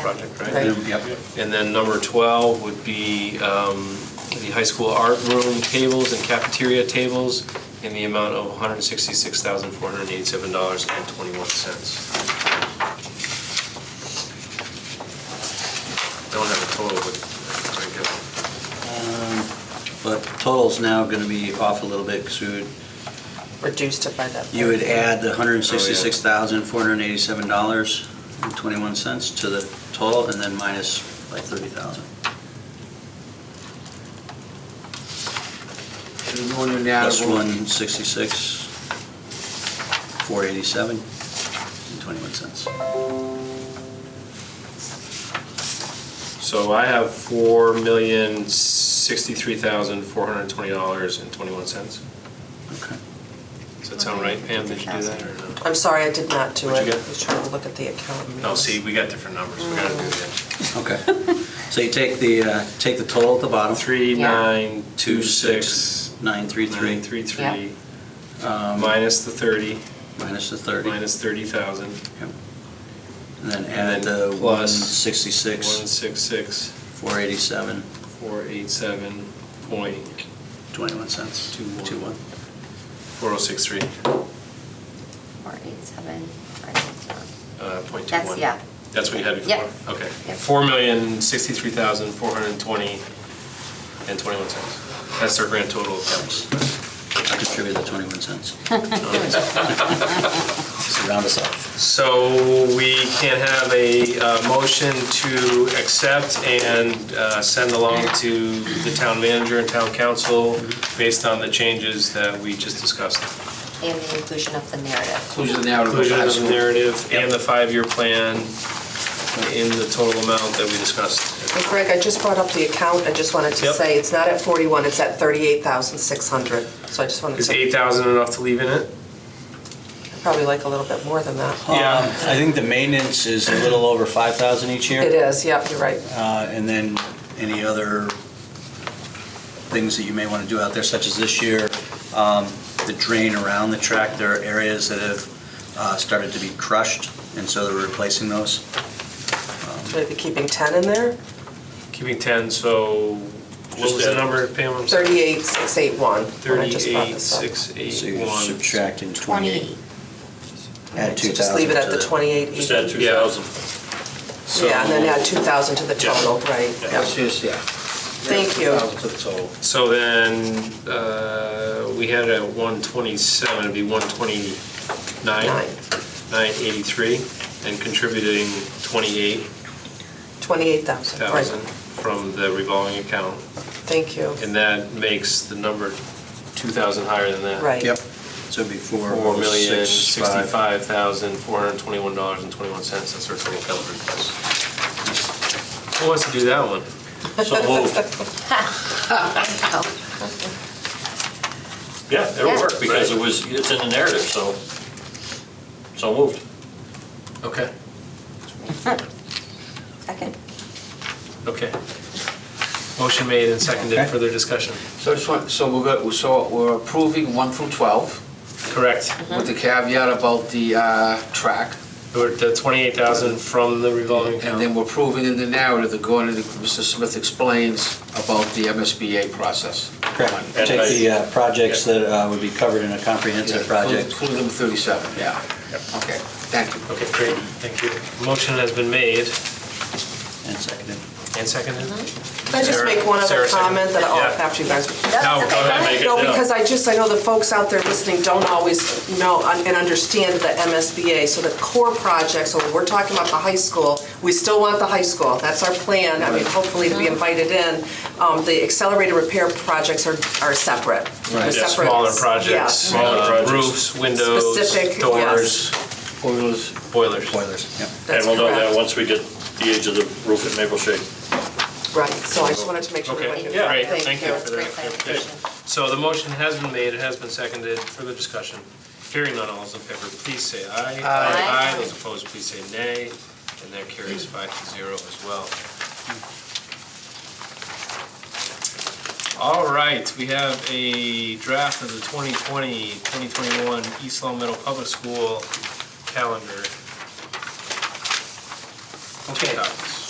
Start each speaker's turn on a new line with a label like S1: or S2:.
S1: project, right?
S2: Right.
S3: Yep.
S1: And then number 12 would be um, the high school art room tables and cafeteria tables in the amount of $166,487.21. Don't have a total, but I guess.
S3: Um, But total's now going to be off a little bit because we would,
S2: reduced it by that.
S3: you would add the $166,487.21 to the total and then minus like 30,000.
S4: There's one in that.
S3: Plus 166, 487, and 21 cents.
S1: So I have $4,063,420.21.
S3: Okay.
S1: Does that sound right, Pam? Did you do that or no?
S2: I'm sorry, I did not do it. I
S1: What'd you get?
S2: was trying to look at the account.
S1: No, see, we got different numbers, we gotta do that.
S3: Okay. So you take the, uh, take the total at the bottom.
S1: Three,
S5: Yeah.
S1: nine, two,
S3: Two six
S1: six,
S3: nine three
S1: three,
S3: three
S1: three, three,
S5: Yeah.
S1: three,
S3: um,
S1: minus the thirty,
S3: minus the 30.
S1: minus thirty thousand,
S3: Yep. And then
S1: And
S3: add
S1: then
S3: the
S1: plus
S3: 166,
S1: one, six, six,
S3: 487,
S1: four, eight, seven, point,
S3: 21 cents.
S1: Two one.
S3: Two one.
S1: four oh six three,
S5: Four eight seven, four eight seven.
S1: uh, point two one.
S5: That's- yeah.
S1: That's what you had
S5: Yeah.
S1: before? Okay.
S5: Yep.
S1: Four million, sixty-three thousand, four hundred and twenty and twenty-one cents. That's their grand total of
S3: Thanks.
S1: taxes.
S3: I contributed the 21 cents. Just round us off.
S1: So we can have a uh, motion to accept and uh, send along to the town manager and town council based on the changes that we just discussed.
S5: And the inclusion of the narrative.
S4: Inclusion of the narrative.
S1: Inclusion of the narrative and the five-year plan in the total amount that we discussed.
S2: And Greg, I just brought up the account. I just wanted to
S1: Yep.
S2: say, it's not at 41, it's at 38,600. So I just wanted
S1: Is
S2: to,
S1: 8,000 enough to leave in it?
S2: probably like a little bit more than that.
S1: Yeah.
S3: Um, I think the maintenance is a little over 5,000 each year.
S2: It is, yep, you're right.
S3: Uh, And then any other things that you may want to do out there, such as this year, um, the drain around the track, there are areas that have uh, started to be crushed, and so they're replacing those.
S2: Maybe keeping 10 in there?
S1: Keeping 10, so what was the number, Pam? I'm sorry.
S2: 38,681. when I just brought this up.
S1: 38,681.
S3: So you're subtracting 28.
S5: Twenty,
S3: Add
S2: So
S3: 2,000
S2: Just leave it at
S3: to
S2: the 28.
S6: Just add two thousand.
S1: So-
S2: Yeah, and then add 2,000 to the
S6: Yeah.
S2: total, right. yeah.
S4: Yes, yes, yeah.
S2: Thank you.
S4: So,
S1: So then, uh, we had it at 127, it'd be 129,
S2: Nine.
S1: 983, and contributing 28,000
S2: 28,000, right.
S1: from the revolving account.
S2: Thank you.
S1: And that makes the number 2,000 higher than that.
S2: Right.
S3: Yep, so it'd be
S1: Four million
S3: $4,065,000.
S1: sixty-five thousand four hundred twenty-one dollars and twenty-one cents, that's our total calendar request. Who wants to do that one?
S6: So moved.
S5: oh,
S6: Yeah, it'll
S5: Yeah.
S6: work because it was, it's in the narrative, so, so moved.
S1: Okay.
S5: second.
S1: Okay. Motion made and seconded,
S3: Okay.
S1: further discussion.
S4: so I just want, so we're, go- so we're approving one through 12
S1: Correct.
S2: Mm-hmm.
S4: with the caveat about the uh, track.
S1: Or The twenty-eight thousand from the revolving
S4: And then
S1: account.
S4: we're proving in the narrative that going into, Mr. Smith explains about the MSBA process.
S3: Correct. Take the uh, projects that uh, would be covered in a comprehensive project.
S4: Including number 37, yeah. Okay, thank you.
S1: Okay, great, thank you. Motion has been made
S3: And seconded.
S1: and seconded.
S2: Can I just
S1: Sarah-
S2: make one other
S1: Sarah, second.
S2: comment that I'll,
S1: Yeah.
S2: after you guys?
S1: No, go ahead, make it.
S2: No,
S1: yeah.
S2: because I just, I know the folks out there listening don't always know and understand the MSBA. So the core project, so when we're talking about the high school, we still want the high school. That's our plan, I mean, hopefully to be invited in. Um, The accelerated repair projects are, are separate. They're
S1: Yeah,
S2: separate-
S1: Smaller projects,
S2: yeah.
S1: smaller projects. roofs, windows,
S2: Specific,
S1: doors,
S4: Boilers,
S1: boilers.
S3: Boilers, yep.
S6: And
S2: That's
S6: we'll know that
S2: correct.
S6: once we get the age of the roof at Maple Shade.
S2: Right, so I just wanted to make sure.
S1: Okay,
S2: everybody-
S1: yeah, great, thank you for
S5: That's great
S1: that. clarification.
S5: clarification.
S1: So the motion has been made, it has been seconded, further discussion. Hearing none, all those in favor, please say aye.
S5: Aye.
S1: Those opposed, please say nay, and that carries five to zero as well. All right, we have a draft of the 2020, 2021 East Long Meadow Public School calendar.
S4: Okay,